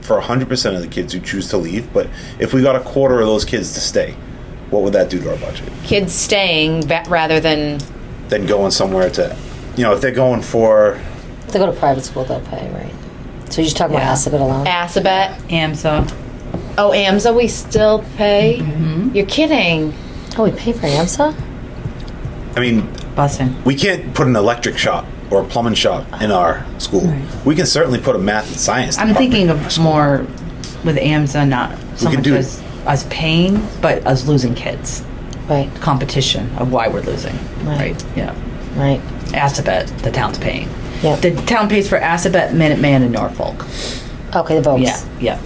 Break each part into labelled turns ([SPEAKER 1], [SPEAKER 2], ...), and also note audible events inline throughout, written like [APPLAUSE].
[SPEAKER 1] for 100% of the kids who choose to leave, but if we got a quarter of those kids to stay, what would that do to our budget?
[SPEAKER 2] kids staying ba- rather than
[SPEAKER 1] Then going somewhere to, you know, if they're going for,
[SPEAKER 3] If they go to private school, they'll pay, right? So you're just talking
[SPEAKER 4] Yeah.
[SPEAKER 3] about Assabet alone?
[SPEAKER 2] Assabet.
[SPEAKER 4] AMSA.
[SPEAKER 2] Oh, AMSA, we still pay?
[SPEAKER 4] Mm-hmm.
[SPEAKER 2] You're kidding.
[SPEAKER 3] Oh, we pay for AMSA?
[SPEAKER 1] I mean,
[SPEAKER 4] Busing.
[SPEAKER 1] we can't put an electric shop or a plumbing shop in our school. We can certainly put a math and science.
[SPEAKER 4] Uh-huh. I'm
[SPEAKER 1] department.
[SPEAKER 4] thinking of more with AMSA, not so
[SPEAKER 1] We can
[SPEAKER 4] much
[SPEAKER 1] do-
[SPEAKER 4] as us paying, but us losing kids.
[SPEAKER 3] Right,
[SPEAKER 4] Competition of why we're losing.
[SPEAKER 3] Right.
[SPEAKER 4] right? Yeah.
[SPEAKER 3] right.
[SPEAKER 4] Assabet, the town's paying.
[SPEAKER 3] Yeah.
[SPEAKER 4] The town pays for Assabet, Minuteman, and Norfolk.
[SPEAKER 3] Okay, the votes.
[SPEAKER 4] Yeah, yeah.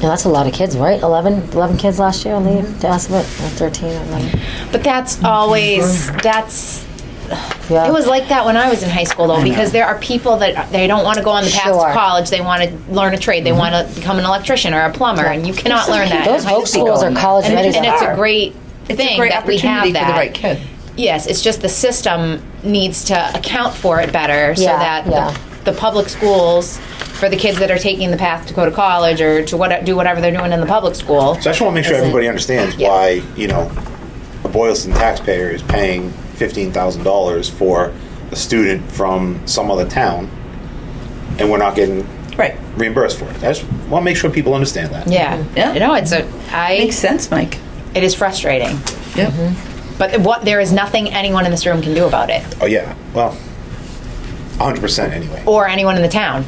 [SPEAKER 3] Yeah, that's a lot of kids, right? 11, 11 kids last year on leave to Assabet, or 13 or 11.
[SPEAKER 2] But
[SPEAKER 4] Mm-hmm.
[SPEAKER 2] that's always, that's,
[SPEAKER 3] Yeah.
[SPEAKER 2] it was like that when I was in high school though, because there are people that, uh, they don't want to go on the path
[SPEAKER 3] Sure.
[SPEAKER 2] to college, they want to learn a trade,
[SPEAKER 4] Mm-hmm.
[SPEAKER 2] they want to become an electrician or a plumber, and you cannot learn that.
[SPEAKER 3] Those
[SPEAKER 2] in high
[SPEAKER 3] folk
[SPEAKER 2] school.
[SPEAKER 3] schools are college
[SPEAKER 2] And,
[SPEAKER 3] ready.
[SPEAKER 2] and it's a great
[SPEAKER 4] It's
[SPEAKER 2] thing
[SPEAKER 4] a great
[SPEAKER 2] that we have
[SPEAKER 4] opportunity
[SPEAKER 2] that.
[SPEAKER 4] for the right kid.
[SPEAKER 2] Yes, it's just the system needs to account for it better so
[SPEAKER 3] Yeah,
[SPEAKER 2] that
[SPEAKER 3] yeah.
[SPEAKER 2] the, the public schools for the kids that are taking the path to go to college or to what do whatever they're doing in the public school.
[SPEAKER 1] So I just want to make sure everybody understands
[SPEAKER 2] Yeah.
[SPEAKER 1] why, you know, a Boylston taxpayer is paying $15,000 for a student from some other town, and we're not getting
[SPEAKER 4] Right.
[SPEAKER 1] reimbursed for it. I just want to make sure people understand that.
[SPEAKER 2] Yeah.
[SPEAKER 4] Yeah.
[SPEAKER 2] You know, it's a I
[SPEAKER 4] Makes sense, Mike.
[SPEAKER 2] it is frustrating.
[SPEAKER 4] Yeah.
[SPEAKER 3] Mm-hmm.
[SPEAKER 2] But what there is nothing anyone in this room can do about it
[SPEAKER 1] Oh, yeah. Well, 100% anyway.
[SPEAKER 2] or anyone in the town.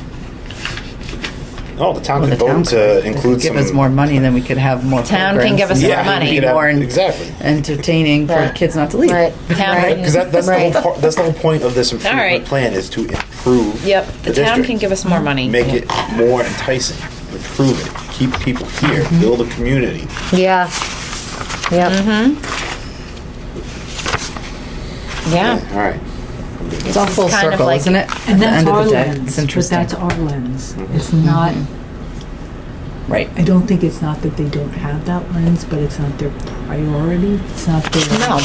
[SPEAKER 1] No, the town
[SPEAKER 4] Well,
[SPEAKER 1] could
[SPEAKER 4] the
[SPEAKER 1] vote
[SPEAKER 4] town
[SPEAKER 1] to
[SPEAKER 4] could
[SPEAKER 1] include some.
[SPEAKER 4] give us more money, then we could have more.
[SPEAKER 2] Town can give us
[SPEAKER 1] Yeah,
[SPEAKER 2] more
[SPEAKER 4] programs.
[SPEAKER 2] money.
[SPEAKER 1] we could have-
[SPEAKER 4] More en-
[SPEAKER 1] Exactly.
[SPEAKER 4] entertaining for
[SPEAKER 3] Yeah.
[SPEAKER 4] kids not to leave.
[SPEAKER 3] Right.
[SPEAKER 2] Town
[SPEAKER 3] right.
[SPEAKER 1] Because that, that's,
[SPEAKER 3] Right.
[SPEAKER 1] the whole, par- that's the whole point of this improvement
[SPEAKER 2] All right.
[SPEAKER 1] plan is to improve
[SPEAKER 2] Yep. The,
[SPEAKER 1] the,
[SPEAKER 2] town
[SPEAKER 1] district.
[SPEAKER 2] can give us more money.
[SPEAKER 1] Make it more enticing, improve it, keep people here, build a community.
[SPEAKER 3] Yeah. Yep.
[SPEAKER 2] Mm-hmm. yeah.
[SPEAKER 1] All right.
[SPEAKER 4] It's all full
[SPEAKER 2] kind of
[SPEAKER 4] circle,
[SPEAKER 2] like-
[SPEAKER 4] isn't it? At
[SPEAKER 5] And
[SPEAKER 4] the
[SPEAKER 5] that's
[SPEAKER 4] end
[SPEAKER 5] our
[SPEAKER 4] of the day,
[SPEAKER 5] lens,
[SPEAKER 4] it's
[SPEAKER 5] but
[SPEAKER 4] interesting.
[SPEAKER 5] that's our lens. It's
[SPEAKER 2] Mm-hmm.
[SPEAKER 5] not,
[SPEAKER 4] Right.
[SPEAKER 5] I don't think it's not that they don't have that lens, but it's not their priority. It's not their.
[SPEAKER 2] No.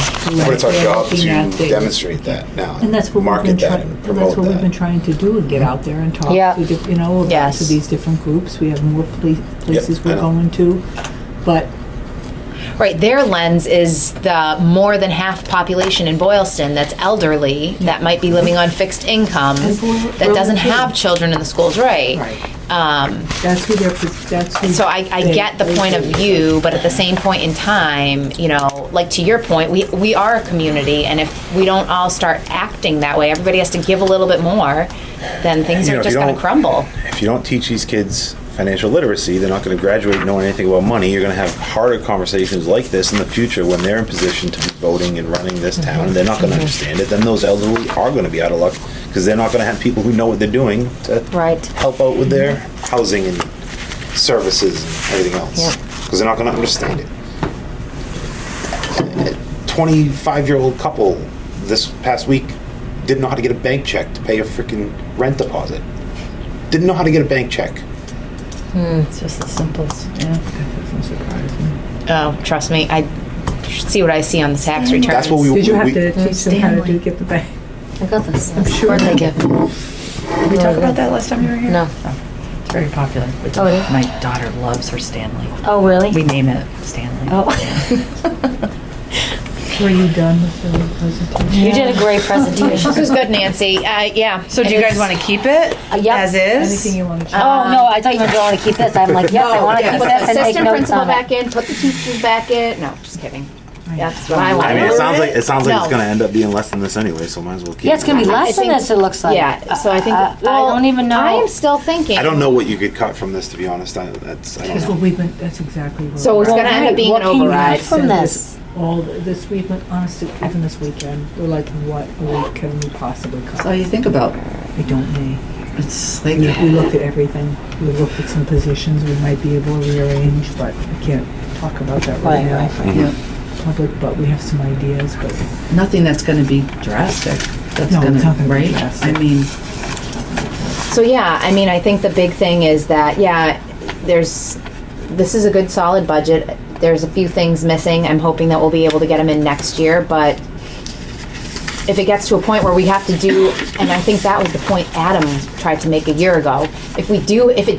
[SPEAKER 1] But it's our
[SPEAKER 5] They're
[SPEAKER 1] job
[SPEAKER 5] looking at
[SPEAKER 1] to
[SPEAKER 5] things.
[SPEAKER 1] demonstrate that now.
[SPEAKER 5] And that's what we've been
[SPEAKER 1] Market that
[SPEAKER 5] trying,
[SPEAKER 1] and
[SPEAKER 5] that's
[SPEAKER 1] promote
[SPEAKER 5] what we've been
[SPEAKER 1] that.
[SPEAKER 5] trying to do, and get out there and talk
[SPEAKER 3] Yeah.
[SPEAKER 5] to, diff- you know, about
[SPEAKER 2] Yes.
[SPEAKER 5] to these different groups. We have more pla- places
[SPEAKER 1] I
[SPEAKER 5] we're
[SPEAKER 1] know.
[SPEAKER 5] going to, but
[SPEAKER 2] Right, their lens is the more than half population in Boylston that's elderly, that might be living on fixed income,
[SPEAKER 5] we're-
[SPEAKER 2] that
[SPEAKER 5] we're
[SPEAKER 2] doesn't
[SPEAKER 5] looking-
[SPEAKER 2] have children in the schools, right?
[SPEAKER 5] Right.
[SPEAKER 2] Um,
[SPEAKER 5] that's who they're, pres- that's who.
[SPEAKER 2] so I, I
[SPEAKER 5] they-
[SPEAKER 2] get the
[SPEAKER 5] they-
[SPEAKER 2] point of view, but at the same point in time, you know, like to your point, we, we are a community, and if we don't all start acting that way, everybody has to give a little bit more, then things
[SPEAKER 1] You know,
[SPEAKER 2] are
[SPEAKER 1] if
[SPEAKER 2] just
[SPEAKER 1] you
[SPEAKER 2] gonna
[SPEAKER 1] don't-
[SPEAKER 2] crumble.
[SPEAKER 1] If you don't teach these kids financial literacy, they're not going to graduate knowing anything about money. You're going to have harder conversations like this in the future when they're in position to be voting and running this town. And they're not going to understand it. Then those elderly are going to be out of luck because they're not going to have people who know what they're doing to
[SPEAKER 3] Right.
[SPEAKER 1] help out with their housing and services and everything else
[SPEAKER 3] Yeah.
[SPEAKER 1] because they're not going to understand it. 25 year old couple this past week didn't know how to get a bank check to pay a freaking rent deposit. Didn't know how to get a bank check.
[SPEAKER 4] It's just the simplest. Yeah.
[SPEAKER 2] Oh, trust me, I see what I see on the tax returns.
[SPEAKER 1] That's what we
[SPEAKER 5] Did you have
[SPEAKER 1] we-
[SPEAKER 5] to teach them how to do, get the bank?
[SPEAKER 3] I got this. I'm sure. Birthday gift.
[SPEAKER 4] Did we talk about that last time you were here? Oh.
[SPEAKER 3] No.
[SPEAKER 4] It's very popular.
[SPEAKER 3] Oh, it is?
[SPEAKER 4] My daughter loves her Stanley.
[SPEAKER 3] Oh, really?
[SPEAKER 4] We name it Stanley.
[SPEAKER 3] oh. [LAUGHS]
[SPEAKER 5] Were you done with the presentation?
[SPEAKER 3] You did a great
[SPEAKER 2] [LAUGHS]
[SPEAKER 3] presentation.
[SPEAKER 2] This was good, Nancy. Uh, yeah.
[SPEAKER 4] So do you guys want to keep it
[SPEAKER 3] Uh, yep.
[SPEAKER 4] as is?
[SPEAKER 5] Anything you
[SPEAKER 2] Um,
[SPEAKER 5] want to?
[SPEAKER 3] oh, no, I thought you were going to keep this. I'm like, yes, I want to
[SPEAKER 4] yeah.
[SPEAKER 3] keep
[SPEAKER 2] Put
[SPEAKER 3] this
[SPEAKER 2] the
[SPEAKER 3] and make
[SPEAKER 2] uh, assistant
[SPEAKER 3] notes
[SPEAKER 2] principal
[SPEAKER 3] on
[SPEAKER 2] back
[SPEAKER 3] it.
[SPEAKER 2] in, put the teachers back in. No, just kidding. That's what I
[SPEAKER 1] I mean, it
[SPEAKER 2] want.
[SPEAKER 1] sounds like it sounds like it's
[SPEAKER 2] No.
[SPEAKER 1] going to end up being less than this anyway, so might as well keep.
[SPEAKER 3] Yeah, it's going to be less than
[SPEAKER 2] think-
[SPEAKER 3] this, it looks like. uh,
[SPEAKER 2] Yeah, so I think,
[SPEAKER 3] I- I
[SPEAKER 2] well,
[SPEAKER 3] don't even know.
[SPEAKER 2] I am still thinking.
[SPEAKER 1] I don't know what you could cut from this, to be honest. I, that's I
[SPEAKER 5] That's
[SPEAKER 1] don't
[SPEAKER 5] what
[SPEAKER 1] know.
[SPEAKER 5] we've been, that's exactly what.
[SPEAKER 2] So it's
[SPEAKER 5] we're-
[SPEAKER 2] gonna end up
[SPEAKER 3] Right,
[SPEAKER 2] being
[SPEAKER 3] what
[SPEAKER 2] an
[SPEAKER 3] can you
[SPEAKER 2] override.
[SPEAKER 3] have from
[SPEAKER 5] Send
[SPEAKER 3] this?
[SPEAKER 5] All th- this week, but honestly, even this weekend, we're like, what week can we possibly
[SPEAKER 4] So
[SPEAKER 5] cut?
[SPEAKER 4] you think about
[SPEAKER 5] I don't know.
[SPEAKER 4] it's like
[SPEAKER 5] We we looked at everything. We looked at some positions we might be able to rearrange, but I can't talk about that right
[SPEAKER 3] Right,
[SPEAKER 5] now.
[SPEAKER 3] right, right.
[SPEAKER 4] yeah,
[SPEAKER 5] Public, but we have some ideas, but
[SPEAKER 4] nothing that's going to be drastic. That's
[SPEAKER 5] No,
[SPEAKER 4] going
[SPEAKER 5] it's not
[SPEAKER 4] to
[SPEAKER 5] gonna be
[SPEAKER 4] right.
[SPEAKER 5] drastic.
[SPEAKER 4] I mean,
[SPEAKER 2] So yeah, I mean, I think the big thing is that yeah, there's this is a good solid budget. There's a few things missing. I'm hoping that we'll be able to get them in next year, but if it gets to a point where we have to do, and I think that was the point Adam tried to make a year ago. If we do, if it